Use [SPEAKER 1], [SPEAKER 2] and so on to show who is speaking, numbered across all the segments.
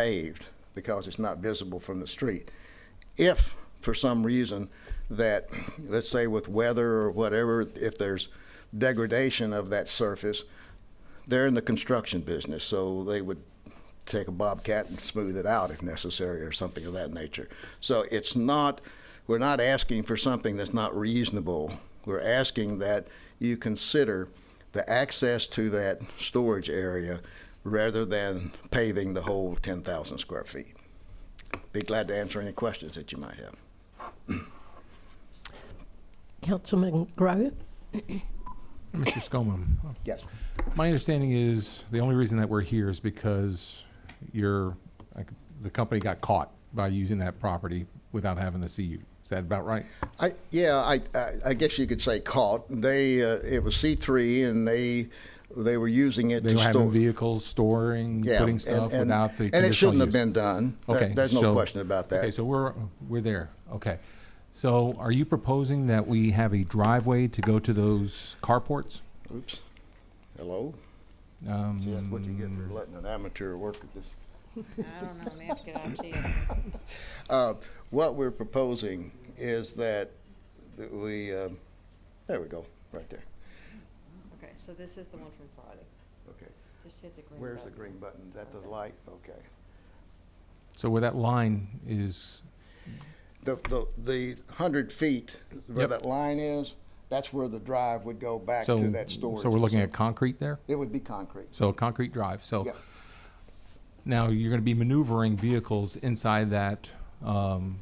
[SPEAKER 1] paved because it's not visible from the street. If for some reason that, let's say with weather or whatever, if there's degradation of that surface, they're in the construction business, so they would take a bobcat and smooth it out if necessary or something of that nature. So it's not, we're not asking for something that's not reasonable. We're asking that you consider the access to that storage area rather than paving the whole 10,000 square feet. Be glad to answer any questions that you might have.
[SPEAKER 2] Councilman Grow?
[SPEAKER 3] Mr. Scoman,
[SPEAKER 1] Yes.
[SPEAKER 3] my understanding is the only reason that we're here is because you're, like, the company got caught by using that property without having the CU. Is that about right?
[SPEAKER 1] I, yeah, I, I, I guess you could say caught. They, uh, it was C3 and they, they were using it
[SPEAKER 3] They
[SPEAKER 1] to
[SPEAKER 3] were
[SPEAKER 1] store.
[SPEAKER 3] having vehicles storing,
[SPEAKER 1] Yeah,
[SPEAKER 3] putting
[SPEAKER 1] and-
[SPEAKER 3] stuff
[SPEAKER 1] and-
[SPEAKER 3] without the
[SPEAKER 1] And
[SPEAKER 3] conditional
[SPEAKER 1] it shouldn't have
[SPEAKER 3] use.
[SPEAKER 1] been done. That-
[SPEAKER 3] Okay,
[SPEAKER 1] There's no
[SPEAKER 3] so-
[SPEAKER 1] question about
[SPEAKER 3] Okay,
[SPEAKER 1] that.
[SPEAKER 3] so we're, we're there. Okay. So are you proposing that we have a driveway to go to those carports?
[SPEAKER 1] Oops. Hello?
[SPEAKER 3] Um,
[SPEAKER 1] See, that's what you get for letting an amateur work at this.
[SPEAKER 4] I don't know, man, get out to you.
[SPEAKER 1] Uh, What we're proposing is that that we, um, there we go, right there.
[SPEAKER 4] Okay, so this is the one from Friday.
[SPEAKER 1] Okay.
[SPEAKER 4] Just hit the green button.
[SPEAKER 1] Where's the green button? Is that the light? Okay.
[SPEAKER 3] So where that line is,
[SPEAKER 1] The, the, the hundred feet where
[SPEAKER 3] Yep.
[SPEAKER 1] that line is, that's where the drive would go back
[SPEAKER 3] so,
[SPEAKER 1] to that storage.
[SPEAKER 3] so we're looking at
[SPEAKER 1] facility.
[SPEAKER 3] concrete there?
[SPEAKER 1] It would be concrete.
[SPEAKER 3] So a concrete drive. So
[SPEAKER 1] Yeah.
[SPEAKER 3] now you're going to be maneuvering vehicles inside that. Um,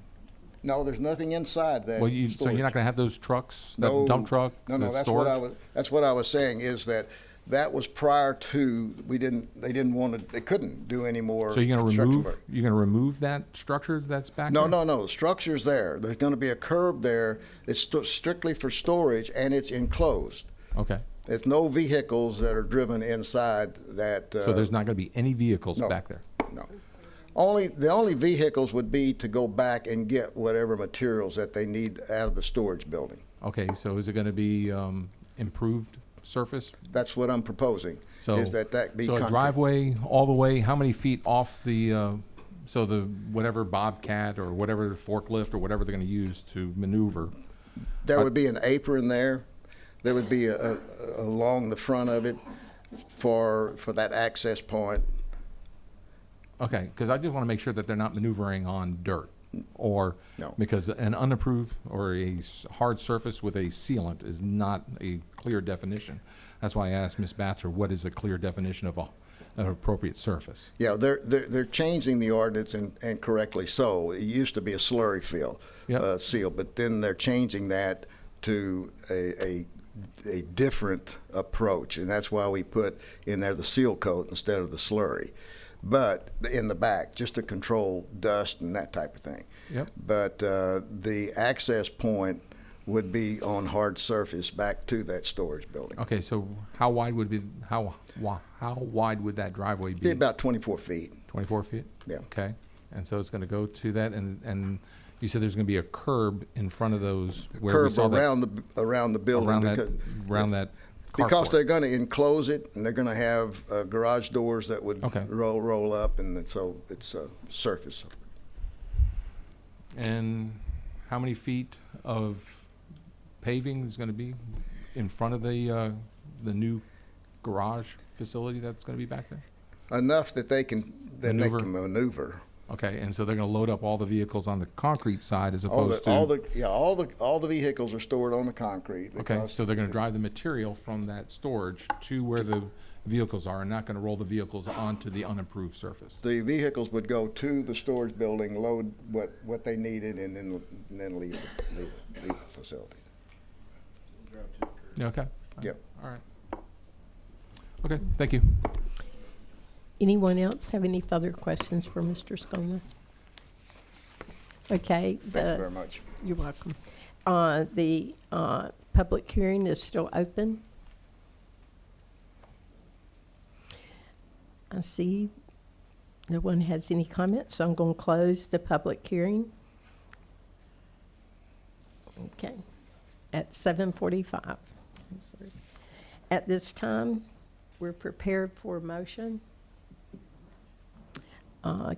[SPEAKER 1] No, there's nothing inside that.
[SPEAKER 3] well, you, so you're
[SPEAKER 1] storage.
[SPEAKER 3] not going to have those trucks, that dump truck,
[SPEAKER 1] No, no,
[SPEAKER 3] the
[SPEAKER 1] that's
[SPEAKER 3] storage.
[SPEAKER 1] what I was. That's what I was saying is that that was prior to we didn't. They didn't want to. They couldn't do any more.
[SPEAKER 3] so you're going to
[SPEAKER 1] construction
[SPEAKER 3] remove
[SPEAKER 1] work.
[SPEAKER 3] you're going to remove that structure that's back
[SPEAKER 1] No,
[SPEAKER 3] there?
[SPEAKER 1] no, no. The structure's there. There's going to be a curb there. It's st- strictly for storage and it's enclosed.
[SPEAKER 3] Okay.
[SPEAKER 1] There's no vehicles that are driven inside that. Uh,
[SPEAKER 3] So there's not going to be any vehicles
[SPEAKER 1] no.
[SPEAKER 3] back there.
[SPEAKER 1] no. Only the only vehicles would be to go back and get whatever materials that they need out of the storage building.
[SPEAKER 3] Okay. So is it going to be um, improved surface?
[SPEAKER 1] That's what I'm proposing.
[SPEAKER 3] So
[SPEAKER 1] is that that be
[SPEAKER 3] so a
[SPEAKER 1] concrete.
[SPEAKER 3] driveway all the way? How many feet off the? Uh, so the whatever bobcat or whatever forklift or whatever they're going to use to maneuver.
[SPEAKER 1] There
[SPEAKER 3] I-
[SPEAKER 1] would be an apron there. There would be a, a, along the front of it for for that access point.
[SPEAKER 3] Okay, because I just want to make sure that they're not maneuvering on dirt or,
[SPEAKER 1] No.
[SPEAKER 3] because an unapproved or a s- hard surface with a sealant is not a clear definition. That's why I asked Ms. Batcher, what is a clear definition of a, an appropriate surface?
[SPEAKER 1] Yeah, they're they're, they're changing the ordinance and, and correctly so. It used to be a slurry fill
[SPEAKER 3] Yep.
[SPEAKER 1] uh, seal, but then they're changing that to a, a a different approach, and that's why we put in there the seal coat instead of the slurry, but in the back just to control dust and that type of thing.
[SPEAKER 3] Yep.
[SPEAKER 1] But uh, the access point would be on hard surface back to that storage building.
[SPEAKER 3] Okay, so how wide would be, how, wi- how wide would that driveway
[SPEAKER 1] Be
[SPEAKER 3] be?
[SPEAKER 1] about 24 feet.
[SPEAKER 3] Twenty-four feet?
[SPEAKER 1] Yeah.
[SPEAKER 3] Okay, and so it's going to go to that and, and you said there's going to be a curb in front of those where we
[SPEAKER 1] Curb
[SPEAKER 3] saw that-
[SPEAKER 1] around the around the building
[SPEAKER 3] Around that,
[SPEAKER 1] because,
[SPEAKER 3] around that
[SPEAKER 1] because
[SPEAKER 3] carport.
[SPEAKER 1] they're going to enclose it and they're going to have uh, garage doors that would
[SPEAKER 3] Okay.
[SPEAKER 1] roll roll up and then- so it's a surface.
[SPEAKER 3] And how many feet of paving is going to be in front of the, uh, the new garage facility that's going to be back there?
[SPEAKER 1] Enough that they can then
[SPEAKER 3] Maneuver.
[SPEAKER 1] they can maneuver.
[SPEAKER 3] Okay, and so they're going to load up all the vehicles on the concrete side as
[SPEAKER 1] All the,
[SPEAKER 3] opposed
[SPEAKER 1] all
[SPEAKER 3] to?
[SPEAKER 1] the yeah all the all the vehicles are stored on the concrete.
[SPEAKER 3] Okay,
[SPEAKER 1] because
[SPEAKER 3] so they're going to drive the material from that storage to where the vehicles are and not going to roll the vehicles onto the unimproved surface?
[SPEAKER 1] the vehicles would go to the storage building, load what, what they needed, and then, and then leave, leave, leave the facility.
[SPEAKER 3] Yeah, Okay?
[SPEAKER 1] Yep.
[SPEAKER 3] All right. Okay, thank you.
[SPEAKER 2] Anyone else have any further questions for Mr. Scoman? Okay,
[SPEAKER 1] Thank you
[SPEAKER 2] the-
[SPEAKER 1] very much.
[SPEAKER 2] you're welcome. Uh, The uh, public hearing is still open. I see no one has any comments, so I'm going to close the public hearing. Okay, at 7:45. I'm sorry. At this time, we're prepared for a motion. Uh,